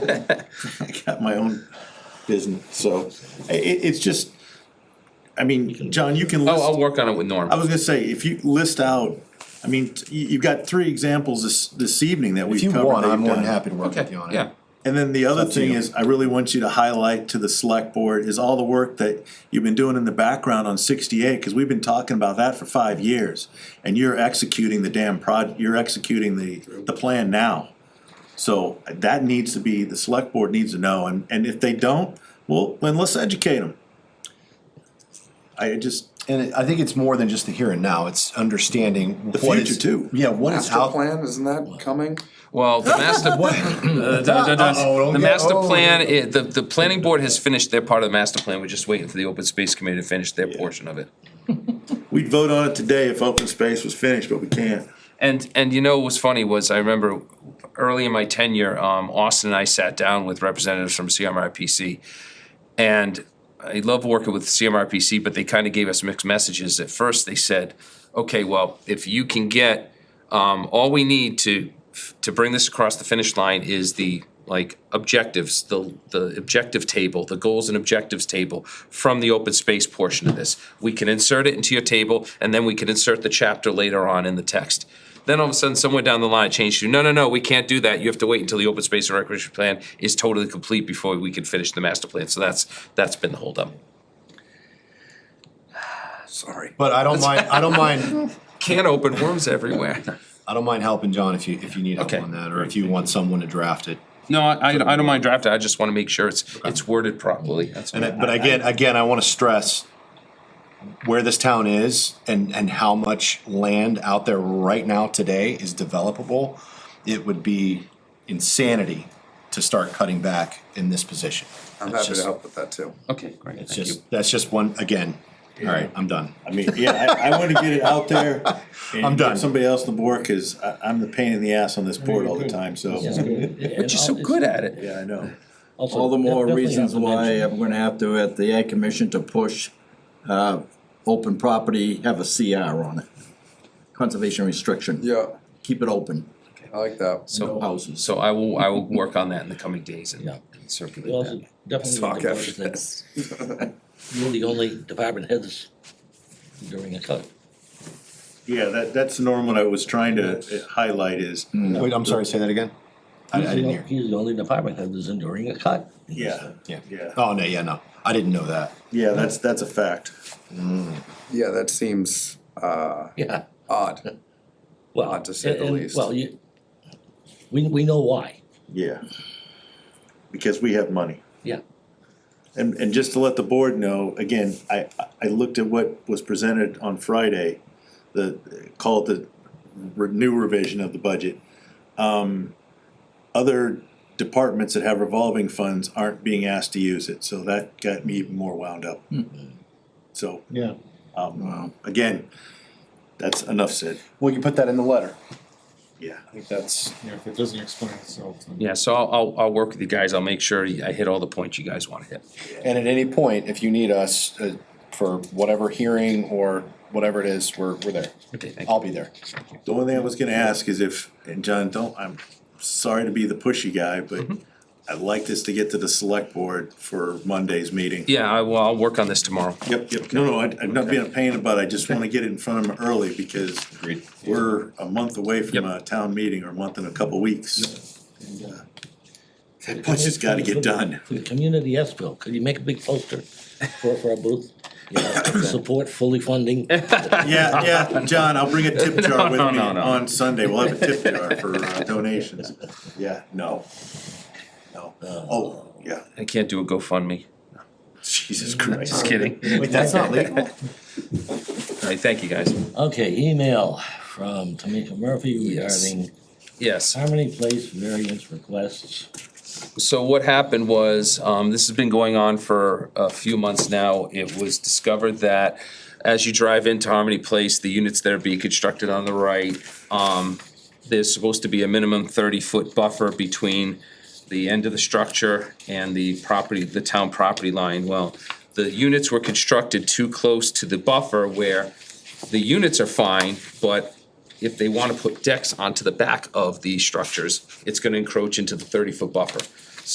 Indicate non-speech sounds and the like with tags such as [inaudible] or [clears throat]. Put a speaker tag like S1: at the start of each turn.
S1: I got my own business, so i- i- it's just, I mean, John, you
S2: Oh,
S1: can
S3: Oh, I'll, I'll
S1: list,
S3: work on it with Norm.
S1: I was gonna say, if you list out, I mean, t- you, you've got three examples this, this evening that we've
S2: If you
S1: covered.
S2: want,
S1: that
S2: I'm
S1: you've
S2: more than
S1: done.
S2: happy to work
S3: Okay,
S2: with you on it.
S3: yeah.
S1: And then the other
S2: to
S1: thing
S2: you.
S1: is, I really want you to highlight to the select board is all the work that you've been doing in the background on sixty-eight, because we've been talking about that for five years. And you're executing the damn prod, you're executing the, the plan now. So that needs to be, the select board needs to know, and, and if they don't, well, then let's educate them. I just,
S2: And it- I think it's more than just the here and now, it's understanding.
S1: The
S2: what is-
S1: future, too.
S2: Yeah, what is
S4: Master
S2: out. [clears throat]
S4: plan, isn't that coming?
S3: Well, the
S2: [laughs]
S3: master, the- the- the-
S2: Uh-oh,
S3: the master
S2: oh.
S3: plan, i- the, the planning board has finished their part of the master plan. We're just waiting for the open space committee to finish their portion of it.
S1: we'd vote on it today if open space was finished, but we can't.
S3: And, and you know what was funny was I remember early in my tenure, um, Austin and I sat down with representatives from CMRPC. And I love working with CMRPC, but they kind of gave us mixed messages. At first, they said, okay, well, if you can get, um, all we need to, to bring this across the finish line is the, like, objectives, the, the objective table, the goals and objectives table from the open space portion of this. We can insert it into your table, and then we can insert the chapter later on in the text. Then all of a sudden, somewhere down the line, it changed to, no, no, no, we can't do that. You have to wait until the open space and recreation plan is totally complete before we can finish the master plan. So that's, that's been the holdup.
S4: Sorry.
S2: But I don't mind,
S3: [laughs]
S2: I don't mind,
S3: Can't open worms everywhere.
S2: I don't mind helping John if you, if you need help
S3: Okay.
S2: on that, or if you want someone to draft it.
S3: No, I, I don't mind drafting. I just want to make sure it's, it's worded properly. That's
S2: And, I-
S3: all.
S2: but again, again, I wanna stress where this town is and, and how much land out there right now today is developable. It would be insanity to start cutting back in this position.
S4: I'm
S2: That's
S4: happy to
S2: just-
S4: help with that too.
S3: Okay, great.
S2: It's
S3: Thank you.
S2: just, that's just one, again, all right, I'm done.
S1: I mean, yeah, I, I want to get it out there. and
S2: [laughs] I'm done.
S1: get Somebody else to work is, I, I'm the pain in the ass on this board all the time, so,
S3: But you're so good at it.
S1: yeah, I know.
S5: All the more reasons why I'm gonna have to, at the Ag Commission, to push, uh, open property, have a CR on it. Conservation restriction.
S4: Yeah,
S5: Keep it open,
S4: I like that.
S5: no
S3: So,
S5: houses.
S3: so I will, I will work on that in the coming days and
S6: Yeah.
S3: and
S6: We
S3: circulate
S6: also
S3: that.
S6: definitely
S4: Talk
S6: need to
S4: after
S6: notice that you're the only department heads during a cut.
S1: Yeah, that, that's the norm what I was trying to uh, highlight is,
S2: Wait, I'm sorry, say that again? I, I didn't hear.
S6: He's the only department head that's enduring a cut.
S1: yeah,
S2: Yeah.
S1: Yeah.
S2: Oh, no, yeah, no, I didn't know that.
S1: yeah, that's, that's a fact.
S4: Yeah, that seems uh,
S6: Yeah,
S4: odd.
S6: well.
S4: Not to say the
S6: and- and-
S4: least.
S6: Well, you, we, we know why,
S1: Yeah. Because we have money.
S6: yeah.
S1: And, and just to let the board know, again, I, I looked at what was presented on Friday, the, called the re- new revision of the budget. Um, other departments that have revolving funds aren't being asked to use it, so that got me even more wound up.
S2: Hmm.
S1: So,
S2: Yeah.
S1: um, again, that's enough said,
S2: Well, you put that in the letter.
S1: yeah.
S7: I think that's, you know, if it doesn't explain itself, then.
S3: Yeah, so I'll, I'll, I'll work with you guys. I'll make sure I hit all the points you guys want to hit.
S2: And at any point, if you need us uh, for whatever hearing or whatever it is, we're, we're there.
S3: Okay, thank you.
S2: I'll be there.
S1: The only thing I was gonna ask is if, and John, don't, I'm sorry to be the pushy guy, but I'd like this to get to the select board for Monday's meeting.
S3: Yeah, I will, I'll work on this tomorrow.
S1: Yep, yep, no, no, I- I'm not being a pain about it, I just wanna get it in front of them early because we're a month away from
S3: Yep.
S1: a town meeting or a month and a couple weeks. And, uh, That push has gotta get done.
S3: [laughs]
S6: For the community yes bill, could you make a big poster for, for our booth? You know, Support fully funding.
S1: Yeah, yeah, John, I'll bring a tip jar with
S3: No,
S1: me
S3: no, no.
S1: on Sunday, we'll have a tip
S3: [laughs]
S1: jar for uh, donations. Yeah, no. No, oh, yeah,
S3: I can't do a GoFundMe.
S1: Jesus Christ.
S3: Just kidding. All
S2: Wait, that's not legal?
S3: right, thank you, guys.
S6: Okay, email from Tamika Murphy regarding
S3: Yes.
S6: Harmony Place variance requests.
S3: so what happened was, um, this has been going on for a few months now. It was discovered that as you drive into Harmony Place, the units that are being constructed on the right, um, there's supposed to be a minimum thirty-foot buffer between the end of the structure and the property, the town property line. Well, the units were constructed too close to the buffer where the units are fine, but if they wanna put decks onto the back of the structures, it's gonna encroach into the thirty-foot buffer.